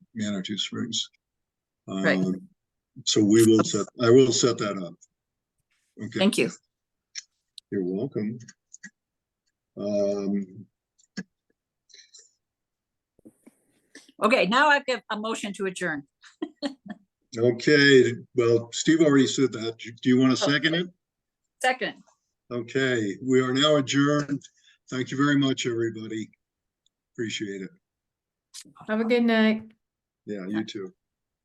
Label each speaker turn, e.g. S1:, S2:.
S1: Manitou Springs.
S2: Right.
S1: Um, So we will set, I will set that up. Okay,
S2: Thank you.
S1: you're welcome. Um,
S2: Okay, now I've got a motion to adjourn.
S1: okay, well, Steve already said that. Do you
S2: Oh,
S1: want to second it?
S2: Second,
S1: Okay, we are now adjourned. Thank you very much, everybody. Appreciate it.
S3: Have a good night.
S2: Uh,
S1: Yeah, you too.